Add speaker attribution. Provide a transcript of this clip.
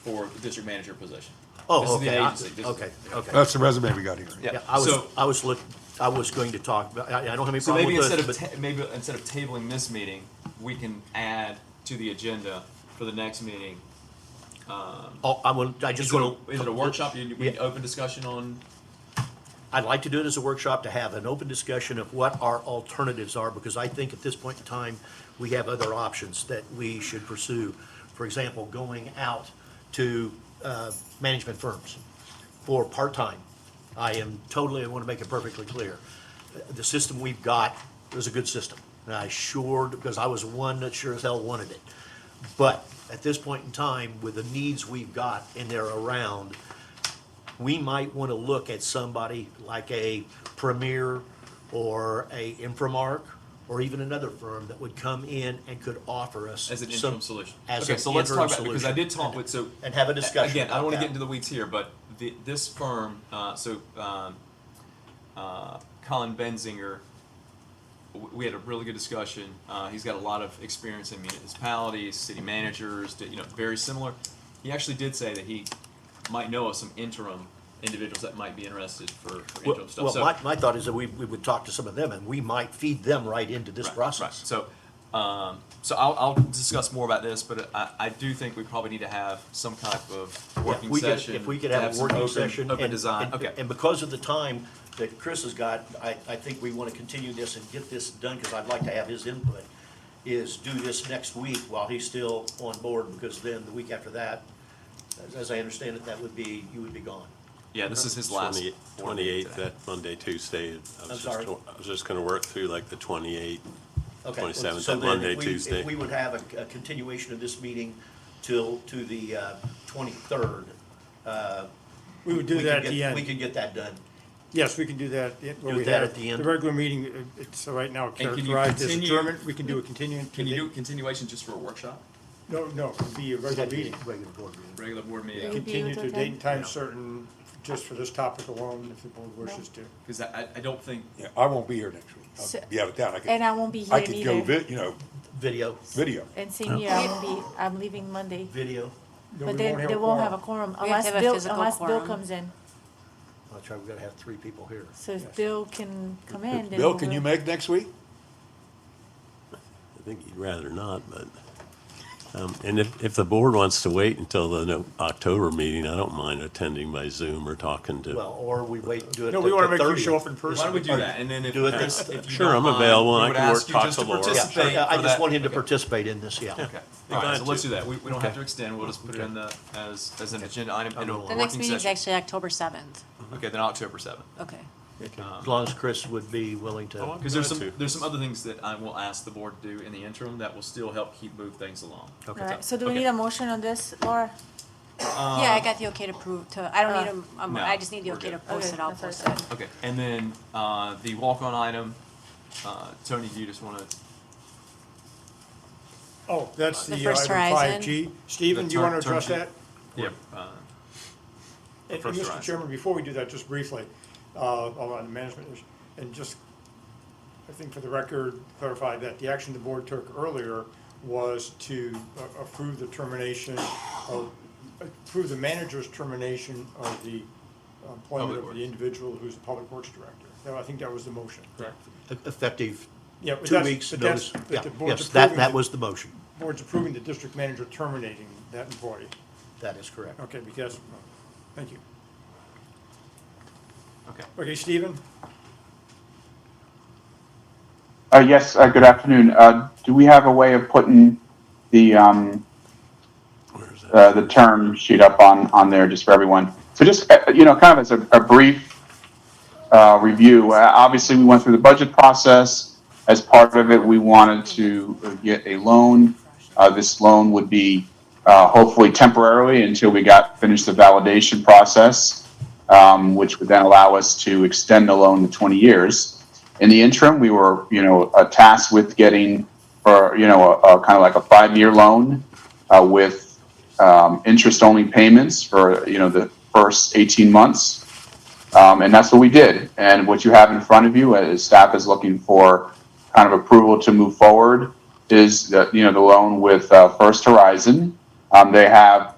Speaker 1: for the district manager position. This
Speaker 2: Oh,
Speaker 1: is the
Speaker 2: okay, I-
Speaker 1: agency. This is-
Speaker 2: okay, okay.
Speaker 3: That's the resume we got here.
Speaker 1: Yeah.
Speaker 2: Yeah, I was,
Speaker 1: So-
Speaker 2: I was look, I was going to talk, about- I, I don't have any
Speaker 1: So
Speaker 2: problem
Speaker 1: maybe
Speaker 2: with
Speaker 1: instead
Speaker 2: this,
Speaker 1: of
Speaker 2: but,
Speaker 1: ta- maybe instead of tabling this meeting, we can add to the agenda for the next meeting.
Speaker 2: oh, I will, I
Speaker 1: Is
Speaker 2: just
Speaker 1: it
Speaker 2: want
Speaker 1: a,
Speaker 2: to.
Speaker 1: is it a workshop? You, we
Speaker 2: Yeah.
Speaker 1: open discussion on.
Speaker 2: I'd like to do it as a workshop to have an open discussion of what our alternatives are, because I think at this point in time, we have other options that we should pursue. For example, going out to uh, management firms for part-time. I am totally, I want to make it perfectly clear. The system we've got is a good system. And I sure, because I was one that sure as hell wanted it. But at this point in time, with the needs we've got and they're around, we might want to look at somebody like a Premier or a Infomark or even another firm that would come in and could offer us.
Speaker 1: As an
Speaker 2: some-
Speaker 1: interim solution.
Speaker 2: As
Speaker 1: Okay,
Speaker 2: an
Speaker 1: so let's
Speaker 2: interim
Speaker 1: talk about, because I
Speaker 2: solution.
Speaker 1: did talk with, so.
Speaker 2: And have a discussion
Speaker 1: Again, I
Speaker 2: about
Speaker 1: don't wanna
Speaker 2: that.
Speaker 1: get into the weeds here, but the, this firm, uh, so, um, uh, Colin Benzinger, w- we had a really good discussion. Uh, he's got a lot of experience in municipalities, city managers, you know, very similar. He actually did say that he might know of some interim individuals that might be interested for, for
Speaker 2: Well,
Speaker 1: interim stuff.
Speaker 2: well,
Speaker 1: So-
Speaker 2: my, my thought is that we, we would talk to some of them and we might feed them right into this
Speaker 1: Right, right.
Speaker 2: process.
Speaker 1: So, um, so I'll, I'll discuss more about this, but I, I do think we probably need to have some type of
Speaker 2: Yeah,
Speaker 1: working
Speaker 2: we could-
Speaker 1: session.
Speaker 2: If we could
Speaker 1: to
Speaker 2: have a
Speaker 1: some
Speaker 2: working
Speaker 1: open-
Speaker 2: session.
Speaker 1: Open
Speaker 2: and-
Speaker 1: design,
Speaker 2: and-
Speaker 1: okay.
Speaker 2: And because of the time that Chris has got, I, I think we want to continue this and get this done, because I'd like to have his input, is do this next week while he's still on board, because then the week after that, as- as I understand it, that would be, you would be gone.
Speaker 1: Yeah, this is his last. board meeting
Speaker 4: Twenty-eighth,
Speaker 1: today.
Speaker 4: that Monday, Tuesday. I was just
Speaker 2: sorry.
Speaker 4: go- I was just gonna work through like the twenty-eighth.
Speaker 2: Okay.
Speaker 4: 27th,
Speaker 2: so
Speaker 4: that
Speaker 2: then if
Speaker 4: Monday,
Speaker 2: we-
Speaker 4: Tuesday.
Speaker 2: If we would have a- a continuation of this meeting till, to the uh, 23rd. uh,
Speaker 5: We would do
Speaker 2: could
Speaker 5: that at
Speaker 2: get-
Speaker 5: the end.
Speaker 2: We could get that done.
Speaker 5: Yes, we can do that. yeah, where
Speaker 2: Do
Speaker 5: we
Speaker 2: that
Speaker 5: have
Speaker 2: at the end.
Speaker 5: The regular meeting, uh, it's right now
Speaker 1: can you
Speaker 5: characterized as
Speaker 1: continue-
Speaker 5: adjournment. We can do a continuing.
Speaker 1: Can you do continuation just for a workshop,
Speaker 5: No, no, it'd be a regular meeting.
Speaker 2: Regular board meeting.
Speaker 1: regular board
Speaker 6: Yeah.
Speaker 1: meeting?
Speaker 5: Continue to a date and
Speaker 2: Yeah.
Speaker 5: time certain, just for this topic alone, if the board wishes to.
Speaker 1: Cause I, I, I don't think,
Speaker 3: Yeah, I won't be here next week.
Speaker 6: So-
Speaker 3: I'll be out of town. I could-
Speaker 6: And I won't be
Speaker 3: I
Speaker 6: here
Speaker 3: could go,
Speaker 6: either.
Speaker 3: vi- you know,
Speaker 2: Video,
Speaker 3: video.
Speaker 6: And same year, I won't be, I'm leaving Monday.
Speaker 2: video.
Speaker 5: No,
Speaker 6: But
Speaker 5: we
Speaker 6: then
Speaker 5: have
Speaker 6: they won't have a
Speaker 5: quorum.
Speaker 6: quorum
Speaker 7: We have
Speaker 6: unless
Speaker 7: to have a
Speaker 6: Bill,
Speaker 7: physical
Speaker 6: unless Bill
Speaker 7: quorum.
Speaker 6: comes in.
Speaker 2: That's right, we gotta have three people here.
Speaker 6: So if Bill can come in, then.
Speaker 3: Bill,
Speaker 6: we
Speaker 3: can you
Speaker 6: will.
Speaker 3: make next week?
Speaker 4: I think you'd rather not, but, um, and if, if the board wants to wait until the no- October meeting, I don't mind attending by Zoom or talking
Speaker 2: Well,
Speaker 4: to.
Speaker 2: or we wait, do it.
Speaker 5: No, we
Speaker 2: the-
Speaker 5: want to
Speaker 2: the
Speaker 5: make you show
Speaker 2: 30th.
Speaker 5: up in
Speaker 1: why don't
Speaker 5: person.
Speaker 1: we do that, and then if,
Speaker 2: Do it
Speaker 1: if
Speaker 2: this-
Speaker 1: if you
Speaker 4: Sure,
Speaker 1: don't
Speaker 4: I'm
Speaker 1: mind,
Speaker 4: available,
Speaker 1: we
Speaker 4: I
Speaker 1: would
Speaker 4: can work
Speaker 1: ask you just
Speaker 4: talk
Speaker 1: to
Speaker 4: to Laura.
Speaker 2: Yeah, sure.
Speaker 1: participate
Speaker 2: Yeah, I
Speaker 1: for
Speaker 2: just
Speaker 1: that-
Speaker 2: want him to
Speaker 1: okay.
Speaker 2: participate in this, yeah.
Speaker 1: Okay, all right, so let's do that. We, we don't have
Speaker 2: Okay.
Speaker 1: to extend, we'll just put it in the, as, as an agenda item in a
Speaker 2: The
Speaker 1: working
Speaker 7: The
Speaker 1: session.
Speaker 7: next meeting is actually October seventh.
Speaker 1: Okay, then October seventh. Um,
Speaker 7: Okay.
Speaker 2: As long as Chris would be willing to,
Speaker 1: Because there's
Speaker 4: Glad
Speaker 1: some,
Speaker 4: to.
Speaker 1: there's some other things that I will ask the board to do in the interim that will still help keep move things along.
Speaker 2: Okay.
Speaker 6: All right, so do we
Speaker 1: Okay. Um,
Speaker 6: need a motion on this, Laura?
Speaker 7: Yeah, I got the okay to prove, to, I don't need
Speaker 6: Uh,
Speaker 7: them, um,
Speaker 1: Uh, no,
Speaker 7: I just need the
Speaker 1: we're
Speaker 7: okay to
Speaker 1: good.
Speaker 7: post
Speaker 6: Okay,
Speaker 7: it, I'll
Speaker 6: that's what I
Speaker 7: post
Speaker 6: said.
Speaker 7: it.
Speaker 1: Okay, and then, uh, the walk-on item, uh, Tony, do you just wanna,
Speaker 5: Oh, that's the
Speaker 7: The
Speaker 5: uh,
Speaker 7: First
Speaker 5: item five G. Stephen, do you want
Speaker 1: turn-
Speaker 5: to address
Speaker 1: turn-
Speaker 5: that?
Speaker 1: yeah, uh,
Speaker 5: And, and
Speaker 1: First
Speaker 5: Mr.
Speaker 1: round.
Speaker 5: Chairman, before we do that, just briefly, uh, on the management issue, and just, I think for the record, clarify that the action the board took earlier was to a- approve the termination of, approve the manager's termination of the
Speaker 1: Public
Speaker 5: employment of
Speaker 1: Works.
Speaker 5: the individual who's the public works director. Now, I think that was the motion, correct?
Speaker 2: effective
Speaker 5: Yeah, but
Speaker 2: two
Speaker 5: that's-
Speaker 2: weeks
Speaker 5: but that's-
Speaker 2: notice.
Speaker 5: but
Speaker 2: Yeah,
Speaker 5: the board's
Speaker 2: Yes, that,
Speaker 5: approving
Speaker 2: that
Speaker 5: the-
Speaker 2: was the motion.
Speaker 5: Board's approving the district manager terminating that employee.
Speaker 2: That is correct.
Speaker 5: Okay, because, thank you.
Speaker 1: okay.
Speaker 5: Okay, Stephen?
Speaker 8: Uh, yes, uh, good afternoon. Uh, do we have a way of putting the, um,
Speaker 4: Where is that?
Speaker 8: uh, the term sheet up on, on there just for everyone? So just, uh, you know, kind of as a, a brief, uh, review, uh, obviously we went through the budget process. As part of it, we wanted to uh, get a loan. Uh, this loan would be, uh, hopefully temporarily until we got, finished the validation process, um, which would then allow us to extend the loan to twenty years in the interim, we were, you know, uh, tasked with getting, or, you know, a, a kind of like a five-year loan uh, with um, interest-only payments for, you know, the first 18 months. Um, and that's what we did. And what you have in front of you, as staff is looking for kind of approval to move forward, is, the, you know, the loan with uh, First Horizon. Um, they have